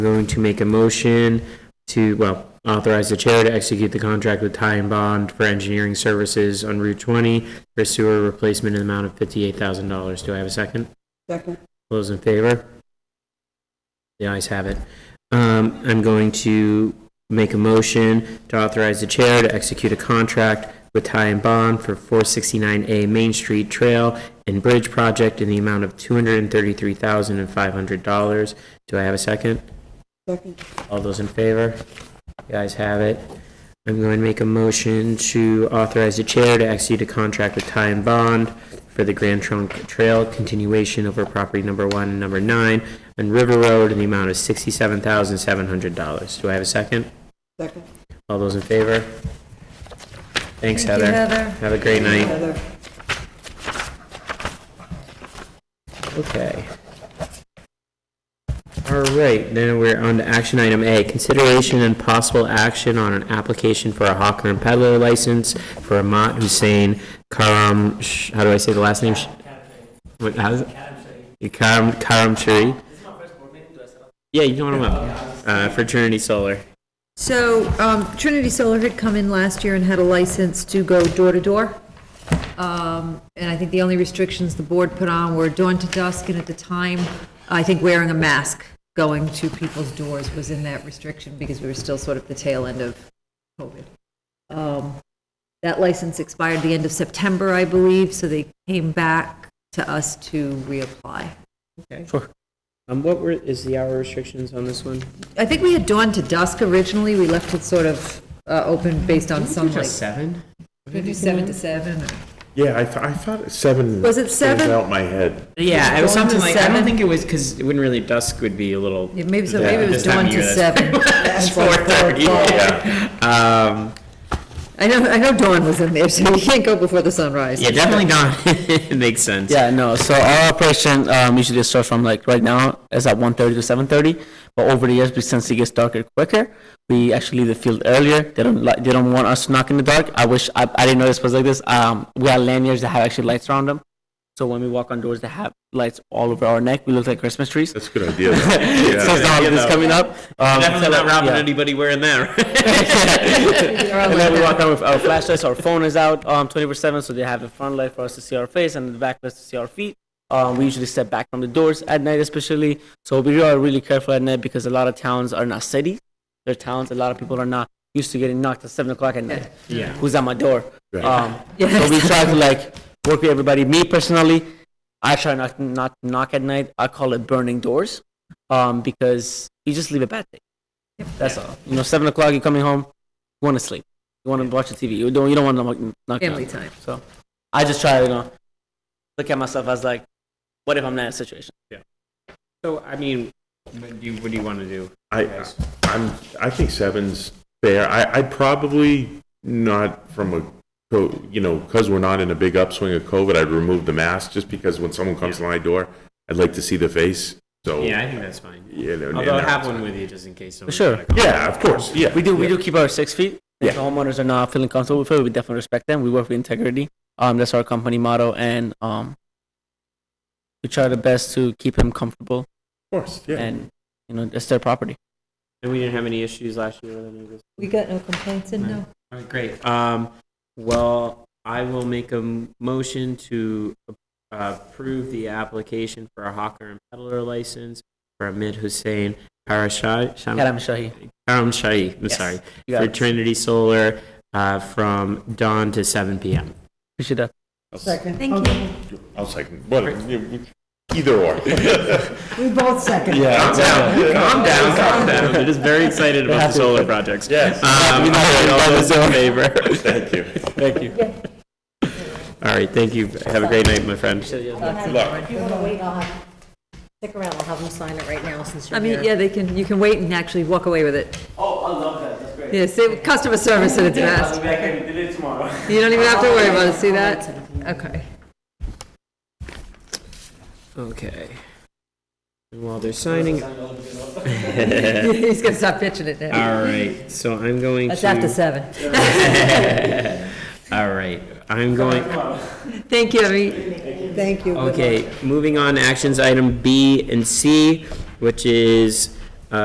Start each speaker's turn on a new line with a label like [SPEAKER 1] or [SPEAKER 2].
[SPEAKER 1] going to make a motion to, well, authorize the chair to execute the contract with Ty and Bond for engineering services on Route 20 for sewer replacement in the amount of $58,000. Do I have a second?
[SPEAKER 2] Second.
[SPEAKER 1] All Those in favor? The ayes have it. Um, I'm going to make a motion to authorize the chair to execute a contract with Ty and Bond for 469A Main Street Trail and Bridge Project in the amount of $233,500. Do I have a second?
[SPEAKER 2] Second.
[SPEAKER 1] All those in favor? The ayes have it. I'm going to make a motion to authorize the chair to execute a contract with Ty and Bond for the Grand Trunk Trail continuation over property number one and number nine on River Road in the amount of sixty-seven thousand seven hundred dollars. Do I have a second?
[SPEAKER 2] Second.
[SPEAKER 1] All those in favor? Thanks,
[SPEAKER 3] Thank you,
[SPEAKER 1] Heather.
[SPEAKER 3] Heather.
[SPEAKER 1] Have a great night.
[SPEAKER 2] Heather.
[SPEAKER 1] Okay. All right, then we're on to action item A, consideration and possible action on an application for a hawker and peddler license for Ahmad Hussein Karam, Sh- how do I say the last name? Sh- What, how's it? Karam, Karam Shari? Yeah, you know what I'm up, uh, fraternity solar.
[SPEAKER 3] So um, Trinity Solar had come in last year and had a license to go door to door. Um, And I think the only restrictions the board put on were dawn to dusk, and at the time, I think wearing a mask going to people's doors was in that restriction because we were still sort of the tail end of COVID. Um, That license expired the end of September, I believe, so they came back to us to reapply.
[SPEAKER 1] Um, what were, is the hour restrictions on this one?
[SPEAKER 3] I think we had dawn to dusk originally, we left it sort of uh, open based on some like.
[SPEAKER 1] seven?
[SPEAKER 3] Can we do seven to seven?
[SPEAKER 4] Yeah, I, th- I thought seven.
[SPEAKER 3] Was it seven?
[SPEAKER 4] Out my head.
[SPEAKER 1] Yeah, it was
[SPEAKER 3] Going to
[SPEAKER 1] something like, I don't
[SPEAKER 3] seven?
[SPEAKER 1] think it was, because it wouldn't really, dusk would be a little.
[SPEAKER 3] Yeah, Maybe, so maybe it was
[SPEAKER 1] This time
[SPEAKER 3] dawn
[SPEAKER 1] of
[SPEAKER 3] to
[SPEAKER 1] year, that's
[SPEAKER 3] seven.
[SPEAKER 1] It's four thirty. Um,
[SPEAKER 3] I know, I know dawn was in there, so you can't go before the sunrise.
[SPEAKER 1] yeah, definitely not. it makes sense.
[SPEAKER 5] Yeah, no, so our operation, um, usually just starts from like, right now, is at one thirty to seven thirty, but over the years, we- since it gets darker quicker, we actually leave the field earlier, they don't like, they don't want us knocking in the dark, I wish, I, I didn't know this was like this, um, we have lanyards that have actually lights around them, so when we walk on doors that have lights all over our neck, we look like Christmas trees.
[SPEAKER 4] That's a good idea. though.
[SPEAKER 5] So
[SPEAKER 4] Yeah.
[SPEAKER 5] it's not this coming up. um,
[SPEAKER 1] Definitely
[SPEAKER 5] so,
[SPEAKER 1] not robbing
[SPEAKER 5] yeah.
[SPEAKER 1] anybody wearing that.
[SPEAKER 5] And then we walk around with our flashlights, our phone is out, um, twenty-four seven, so they have the front light for us to see our face and the back light to see our feet. Um, we usually step back from the doors at night especially, so we are really careful at night because a lot of towns are not cities. They're towns, a lot of people are not used to getting knocked at seven o'clock at night.
[SPEAKER 1] Yeah.
[SPEAKER 5] Who's at my door?
[SPEAKER 4] Right.
[SPEAKER 5] Um,
[SPEAKER 3] Yeah.
[SPEAKER 5] so we try to like work with everybody. Me personally, I try not not to knock at night. I call it burning doors, um, because you just leave a bad thing. That's all. You know, seven o'clock, you're coming home, you want to sleep, you want to watch the TV. You don't you don't want to knock, knock
[SPEAKER 3] Family
[SPEAKER 5] down.
[SPEAKER 3] time.
[SPEAKER 5] So I just try to you know, look at myself as like, what if I'm not in a situation?
[SPEAKER 1] so, I mean, what do you, what do you want to do?
[SPEAKER 4] I, I'm, I think seven's fair. I, I probably not from a, co- you know, because we're not in a big upswing of COVID, I'd remove the mask just because when someone comes to my door, I'd like to see the face. So.
[SPEAKER 1] Yeah, I think that's fine.
[SPEAKER 4] you know, and-
[SPEAKER 1] Although I
[SPEAKER 4] and
[SPEAKER 1] have
[SPEAKER 4] that's-
[SPEAKER 1] one with you just in case. someone-
[SPEAKER 5] Sure.
[SPEAKER 4] Yeah, of course, yeah.
[SPEAKER 5] We do we do keep our six feet. If the
[SPEAKER 4] Yeah.
[SPEAKER 5] homeowners are not feeling comfortable with it, we definitely respect them. We work with integrity. Um, that's our company motto, and um, we try the best to keep them comfortable,
[SPEAKER 4] Of course, yeah.
[SPEAKER 5] and you know, it's their property.
[SPEAKER 1] And we didn't have any issues last year with any of this.
[SPEAKER 3] We got no complaints in, no?
[SPEAKER 1] All right, great. Um, well, I will make a m- motion to uh, approve the application for a hawker and peddler license for Ahmed Hussein Parashai.
[SPEAKER 5] Karam Shahi.
[SPEAKER 1] Karam Shai, I'm sorry,
[SPEAKER 5] You got
[SPEAKER 1] for
[SPEAKER 5] it.
[SPEAKER 1] Trinity Solar uh, from dawn to 7 p.m.
[SPEAKER 5] Appreciate that.
[SPEAKER 2] Second.
[SPEAKER 3] Thank you.
[SPEAKER 4] I'll second, well, either or.
[SPEAKER 2] We both second.
[SPEAKER 1] Calm down, calm down, calm down. They're just very excited about the solar projects.
[SPEAKER 4] Yes.
[SPEAKER 1] Um, all right, all those in favor?
[SPEAKER 4] Thank you.
[SPEAKER 5] Thank you.
[SPEAKER 1] All right, thank you. Have a great night, my friend.
[SPEAKER 6] If you want to wait, I'll have, stick around, I'll have them sign it right now since
[SPEAKER 3] I
[SPEAKER 6] you're here.
[SPEAKER 3] mean, yeah, they can, you can wait and actually walk away with it. Oh, I love that, that's great. Yeah, say, customer service at its best. You don't even have to worry about it, see that? Okay.
[SPEAKER 1] Okay. And while they're signing, all
[SPEAKER 3] He's gonna stop pitching it now.
[SPEAKER 1] right, so I'm going
[SPEAKER 3] That's after
[SPEAKER 1] to,
[SPEAKER 3] seven.
[SPEAKER 1] all right, I'm going,
[SPEAKER 3] Thank you, I mean,
[SPEAKER 2] Thank you.
[SPEAKER 1] okay, moving on, to actions item B and C, which is uh,